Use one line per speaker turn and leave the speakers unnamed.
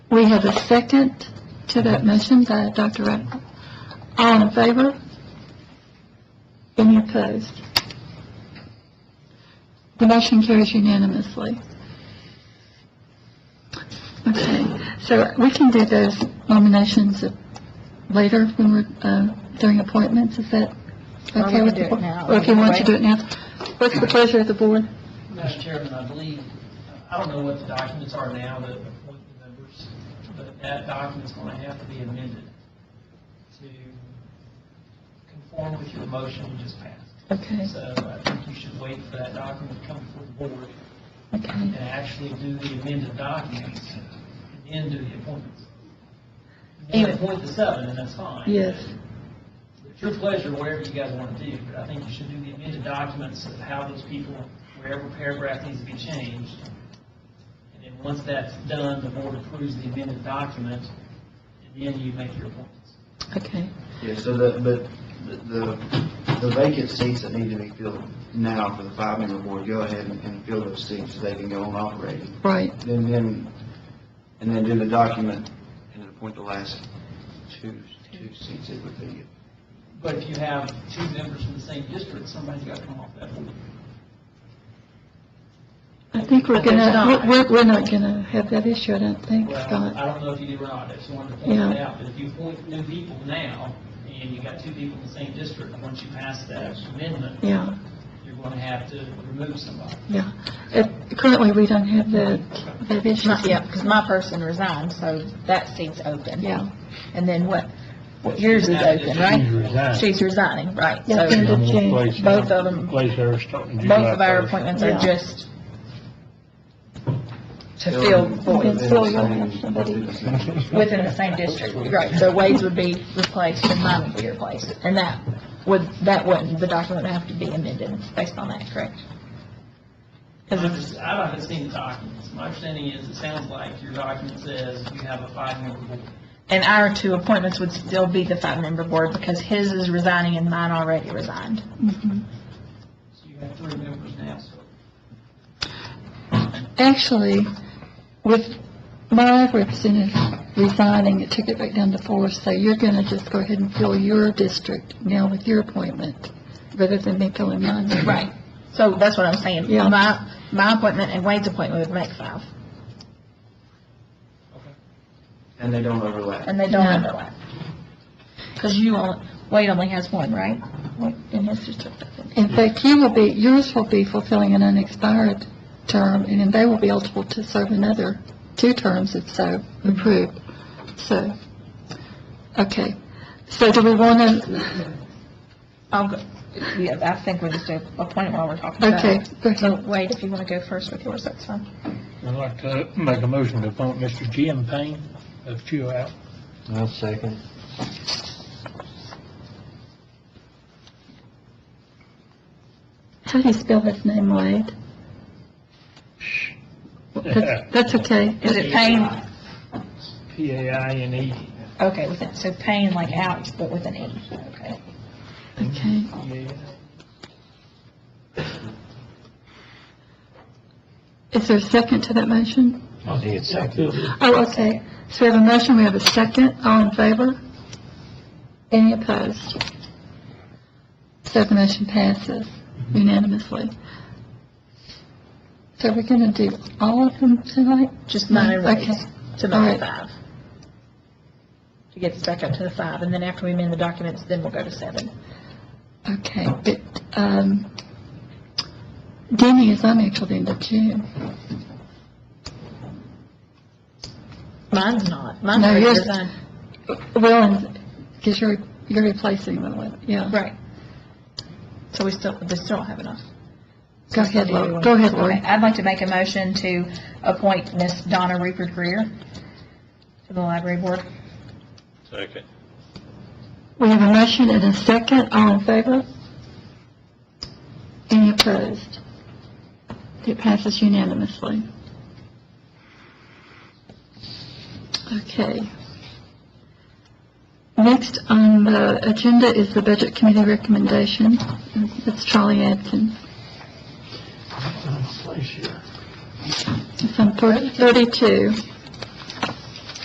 we have a second to that motion by Dr. Ratcliffe? All in favor? Any opposed? The motion carries unanimously. Okay, so we can do those nominations later when we're, uh, during appointments, is that
Or we
okay
can
with
do
the
it
board?
now.
Or if you want to do it now. What's the pleasure of the board?
Madam Chairman, I believe, I don't know what the documents are now that appoint the members, but that document's going to have to be amended to conform with your motion you just passed.
Okay,
So I think you should wait for that document to come before the board
okay.
and actually do the amended documents and then do the appointments. You can
Anyway.
appoint the seven, and that's fine.
Yes.
It's your pleasure, whatever you guys want to do, but I think you should do the amended documents of how those people, wherever paragraph needs to be changed. And then once that's done, the board approves the amended document, and then you make your appointments.
Okay,
Yeah, so the, but the, the vacant seats that need to be filled now for the five-member board, go ahead and- and fill those seats so they can go on operating.
right,
Then, then, and then do the document and then appoint the last two, two seats that would be.
But if you have two members from the same district, somebody's got to come off that board.
I think we're
But there's
gonna,
not.
we're, we're not gonna have that issue, I don't think,
Well,
Scott.
I don't know if you do or not, I just wanted to point that
Yeah.
out, but if you appoint new people now, and you got two people in the same district, once you pass that amendment,
Yeah,
you're going to have to remove somebody.
yeah. It- Currently, we don't have that, that issue.
My- Yeah, because my person resigned, so that seat's open.
Yeah,
And then what, what yours is open, right?
resigned.
She's resigning, right.
Yeah,
So
and the-
Both
Both of them-
Place her starting July
both of our
first.
appointments
Yeah.
are just to fill voids
Fill your hand, somebody.
within the same district. Right, so Wade's would be replaced and mine would be replaced. And that would, that wouldn't, the document would have to be amended based on that, correct?
Because I'm just, I haven't seen the documents. My understanding is, it sounds like your document says you have a five-member board.
And our two appointments would still be the five-member board because his is resigning and mine already resigned.
mhm.
So you have three members now, so.
Actually, with my representative resigning, it took it back down to four, so you're gonna just go ahead and fill your district now with your appointment, rather than me filling mine.
Right. So that's what I'm saying.
Yeah.
My, my appointment and Wade's appointment would make five,
And they don't overlap.
and they don't
Yeah.
overlap. Because you, only- Wade only has one, right? Wade and his district, I think.
In fact, you will be, yours will be fulfilling an unexpired term, and then they will be eligible to serve another two terms if so approved. So, okay. So do we want to,
I'll go, yeah, I think we'll just do appointment while we're talking about
okay,
it.
go
So
ahead.
Wade, if you want to go first with yours, that's fine.
I'd like to make a motion to appoint Mr. Jim Payne of Chuo
I'll second.
How do you spell his name, Wade? That's that's okay.
Is it Payne?
P A I N E.
Okay, with it, so Payne like Alex, but with an E, okay.
Okay. Is there a second to that motion? Oh, okay. So we have a motion, we have a second. All in favor? Any opposed? So the motion passes unanimously. So we're going to do all of them tonight?
Just mine and Wade's.
Okay.
to
All right.
make it five. To get it back up to the five, and then after we amend the documents, then we'll go to seven.
Okay, but, um, Denny is on until the end of June.
Mine's not, mine's
No,
already
yours-
resigned.
Well, because you're, you're replacing them with, yeah.
Right. So we still, we still don't have enough.
Go ahead, Lori. Go ahead, Lori.
Okay, I'd like to make a motion to appoint Miss Donna Rupert Greer to the library board.
Second.
We have a motion and a second. All in favor? Any opposed? It passes unanimously. Okay. Next on the agenda is the Budget Committee recommendation. That's Charlie Atkins. It's on page 32.